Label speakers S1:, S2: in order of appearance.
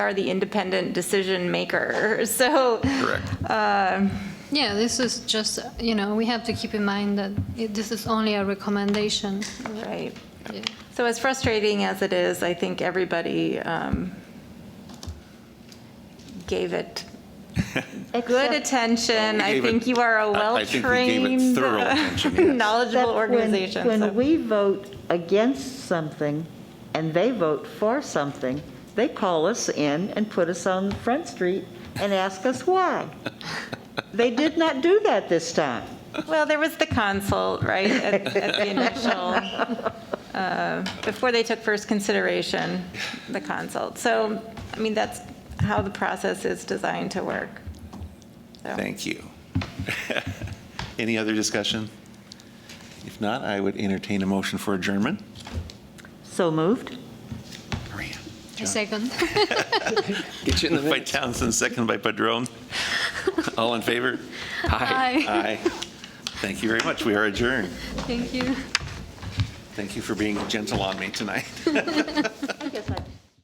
S1: are the independent decision maker. So,
S2: Correct.
S3: Yeah, this is just, you know, we have to keep in mind that it- this is only a recommendation.
S1: right.
S3: Yeah.
S1: So as frustrating as it is, I think everybody um, gave it good attention. I
S2: gave it-
S1: think you are
S2: I-
S1: a
S2: I think we gave it
S1: well-trained,
S2: thorough attention, yes.
S1: knowledgeable
S4: Except when-
S1: organization.
S4: When
S1: so-
S4: we vote against something and they vote for something, they call us in and put us on Front Street and ask us why. They did not do that this time.
S1: Well, there was the consult, right, at at the initial, uh, before they took first consideration, the consult. So, I mean, that's how the process is designed to work. So-
S2: Thank you. Any other discussion? If not, I would entertain a motion for adjournment.
S4: So moved?
S2: Maria.
S3: A second.
S5: Get you in the
S2: By
S5: minutes.
S2: Townsend, second by Padron. All in favor?
S3: Hi.
S2: Aye. Thank you very much. We are adjourned.
S3: Thank you.
S2: Thank you for being gentle on me tonight.